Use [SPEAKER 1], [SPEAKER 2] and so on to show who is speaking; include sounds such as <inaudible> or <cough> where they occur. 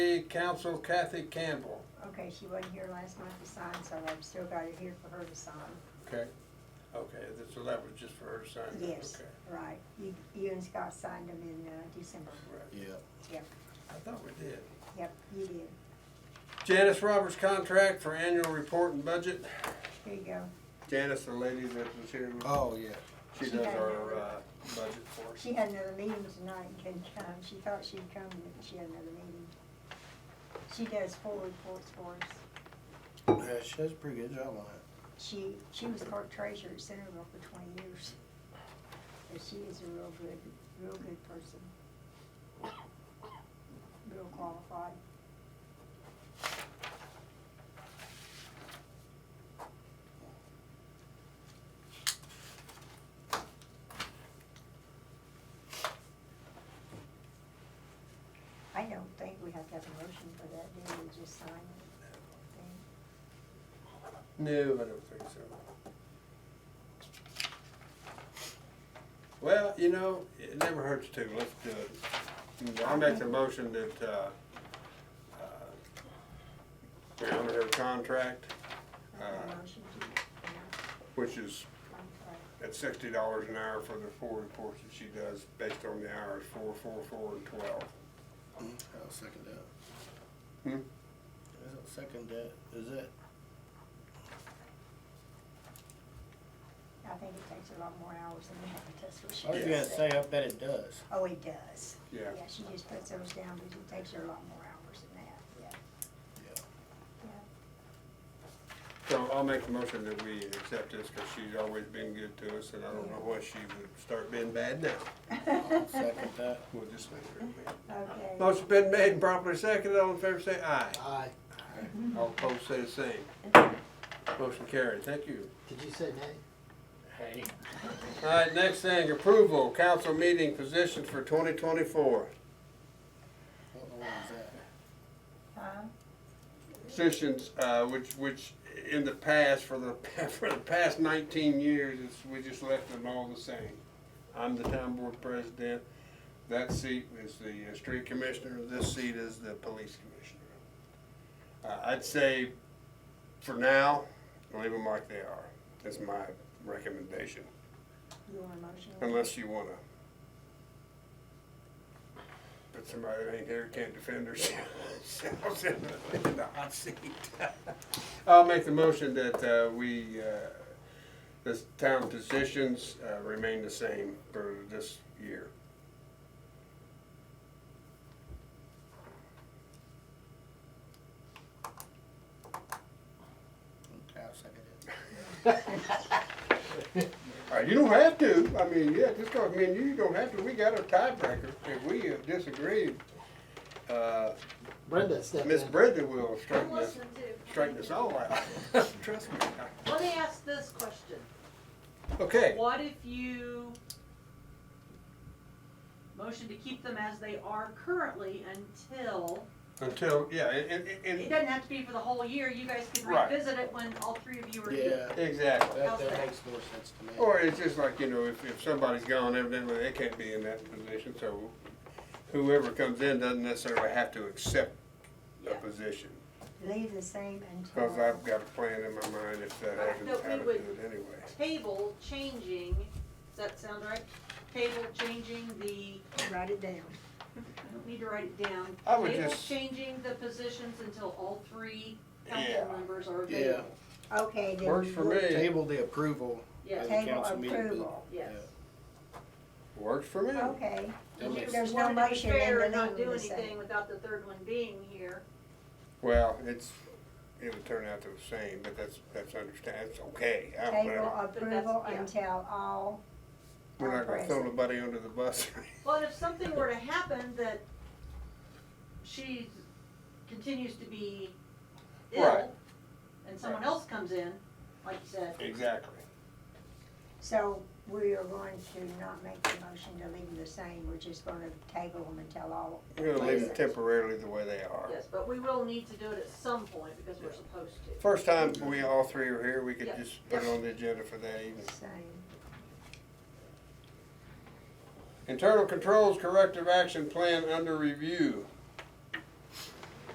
[SPEAKER 1] City Council Kathy Campbell.
[SPEAKER 2] Okay, she wasn't here last month to sign, so I've still got it here for her to sign.
[SPEAKER 1] Okay, okay, that- so that was just for her to sign? that,
[SPEAKER 2] Yes,
[SPEAKER 1] Okay.
[SPEAKER 2] right. You, you and Scott signed them in, uh, December.
[SPEAKER 1] Right.
[SPEAKER 3] Yeah.
[SPEAKER 2] Yep,
[SPEAKER 1] I thought we did.
[SPEAKER 2] yep, you did.
[SPEAKER 1] Janice Roberts contract for annual report and budget.
[SPEAKER 2] Here you go.
[SPEAKER 1] Janice, the lady that was here,
[SPEAKER 3] Oh, yeah.
[SPEAKER 1] she does our, uh, budget for us.
[SPEAKER 2] She had another meeting tonight and couldn't come. She thought she'd come, but she had another meeting. She does four reports for us.
[SPEAKER 3] Yeah, she does a pretty good job on it.
[SPEAKER 2] She, she was clerk treasurer at Centerville for twenty years. And she is a real good, real good person. Real qualified. I don't think we have to have a motion for that, do we just sign it? Then-
[SPEAKER 1] No, I don't think so. Well, you know, it never hurts to, let's do it. I make the motion that, uh, uh, we honor her contract, uh,
[SPEAKER 2] Motion to,
[SPEAKER 1] which is at sixty dollars an hour for the four reports that she does, based on the hours, four, four, four, and twelve.
[SPEAKER 3] I'll second that.
[SPEAKER 1] Mm-hmm. Hmm?
[SPEAKER 3] I'll second that. Is that?
[SPEAKER 2] I think it takes a lot more hours than that, but that's what she
[SPEAKER 1] Oh,
[SPEAKER 3] I was gonna
[SPEAKER 2] does.
[SPEAKER 3] say, I bet it does.
[SPEAKER 2] Oh, it does.
[SPEAKER 1] Yeah.
[SPEAKER 2] Yeah, she just puts those down, but it takes her a lot more hours than that, yeah.
[SPEAKER 3] Yeah.
[SPEAKER 1] So I'll make the motion that we accept this, cause she's always been good to us, and I don't know why she would start being bad now.
[SPEAKER 3] I'll second that. <laughs>
[SPEAKER 1] We'll just leave her at that.
[SPEAKER 2] <laughs> Okay.
[SPEAKER 1] Motion been made and properly seconded, all in favor say aye.
[SPEAKER 4] Aye.
[SPEAKER 1] All opposed say the same. Motion carried, thank you.
[SPEAKER 4] Did you say nay?
[SPEAKER 3] Hey.
[SPEAKER 1] All right, next thing, approval, council meeting positions for twenty twenty-four.
[SPEAKER 3] What one was that?
[SPEAKER 2] Huh?
[SPEAKER 1] Positions, uh, which, which in the past, for the, <laughs> for the past nineteen years, it's, we just left them all the same. I'm the town board president, that seat is the uh, street commissioner, this seat is the police commissioner. Uh, I'd say for now, leave them like they are, that's my recommendation,
[SPEAKER 2] You want a motion?
[SPEAKER 1] unless you wanna. But somebody that ain't here can't defend herself in the hot seat. I'll make the motion that, uh, we, uh, this town positions, uh, remain the same for this year.
[SPEAKER 3] Okay, I'll second it.
[SPEAKER 1] All right, Uh, you don't have to, I mean, yeah, just 'cause, I mean, you don't have to, we got a tiebreaker, if we uh, disagree, uh,
[SPEAKER 4] Brenda stepped in.
[SPEAKER 1] Miss Brenda will
[SPEAKER 5] I'm
[SPEAKER 1] straighten us,
[SPEAKER 5] listening to.
[SPEAKER 1] straighten us all out, trust me.
[SPEAKER 5] Let me ask this question.
[SPEAKER 1] Okay,
[SPEAKER 5] What if you motion to keep them as they are currently until,
[SPEAKER 1] until, yeah, and,
[SPEAKER 5] it
[SPEAKER 1] and,
[SPEAKER 5] doesn't have to be for the whole year, you guys can
[SPEAKER 1] Right.
[SPEAKER 5] revisit it when all three of you are here.
[SPEAKER 3] Yeah,
[SPEAKER 1] and, exactly.
[SPEAKER 3] that, that makes more sense to me.
[SPEAKER 1] Or it's just like, you know, if, if somebody's gone, evidently they can't be in that position, so whoever comes in doesn't necessarily have to accept a
[SPEAKER 5] Yeah.
[SPEAKER 1] position.
[SPEAKER 2] Leave the same
[SPEAKER 1] Cause
[SPEAKER 2] until,
[SPEAKER 1] I've got a plan in my mind if that
[SPEAKER 5] Right,
[SPEAKER 1] happens,
[SPEAKER 5] but we
[SPEAKER 1] how to do
[SPEAKER 5] would-
[SPEAKER 1] it anyway.
[SPEAKER 5] Table changing, does that sound right? Table changing the,
[SPEAKER 2] write it down.
[SPEAKER 5] I don't need to write it down.
[SPEAKER 1] I would
[SPEAKER 5] Table
[SPEAKER 1] just-
[SPEAKER 5] changing the positions until all three
[SPEAKER 1] Yeah.
[SPEAKER 5] council members are
[SPEAKER 3] Yeah.
[SPEAKER 5] available.
[SPEAKER 2] Okay, then.
[SPEAKER 1] Works for
[SPEAKER 2] we'll-
[SPEAKER 1] me.
[SPEAKER 3] Table the approval.
[SPEAKER 5] Yes,
[SPEAKER 3] Yeah.
[SPEAKER 2] Table
[SPEAKER 3] Council meeting.
[SPEAKER 2] approval,
[SPEAKER 5] yes.
[SPEAKER 1] Works for me.
[SPEAKER 2] okay.
[SPEAKER 3] That
[SPEAKER 5] You
[SPEAKER 3] makes-
[SPEAKER 2] There's no
[SPEAKER 5] wanted to be
[SPEAKER 2] motion in
[SPEAKER 5] fair
[SPEAKER 2] the
[SPEAKER 5] and not
[SPEAKER 2] name
[SPEAKER 5] do
[SPEAKER 2] of the same.
[SPEAKER 5] anything without the third one being here.
[SPEAKER 1] Well, it's, it would turn out to the same, but that's, that's understand, it's okay. I don't-
[SPEAKER 2] Table
[SPEAKER 1] whatever.
[SPEAKER 2] approval
[SPEAKER 5] yeah.
[SPEAKER 2] until all
[SPEAKER 1] We're
[SPEAKER 2] are
[SPEAKER 1] not gonna throw
[SPEAKER 2] present.
[SPEAKER 1] nobody under the bus. <laughs>
[SPEAKER 5] But if something were to happen that she continues to be
[SPEAKER 1] Right.
[SPEAKER 5] ill, and someone
[SPEAKER 1] Right.
[SPEAKER 5] else comes in, like you said,
[SPEAKER 1] Exactly.
[SPEAKER 2] So we are going to not make the motion to leave them the same. We're just gonna table them until all.
[SPEAKER 1] We're gonna leave them
[SPEAKER 2] present.
[SPEAKER 1] temporarily the way they are.
[SPEAKER 5] yes, but we will need to do it at some point because we're supposed to.
[SPEAKER 1] First time we all three are here, we could
[SPEAKER 5] Yeah.
[SPEAKER 1] just put it on the agenda for that evening.
[SPEAKER 2] Same.
[SPEAKER 1] Internal controls corrective action plan under review.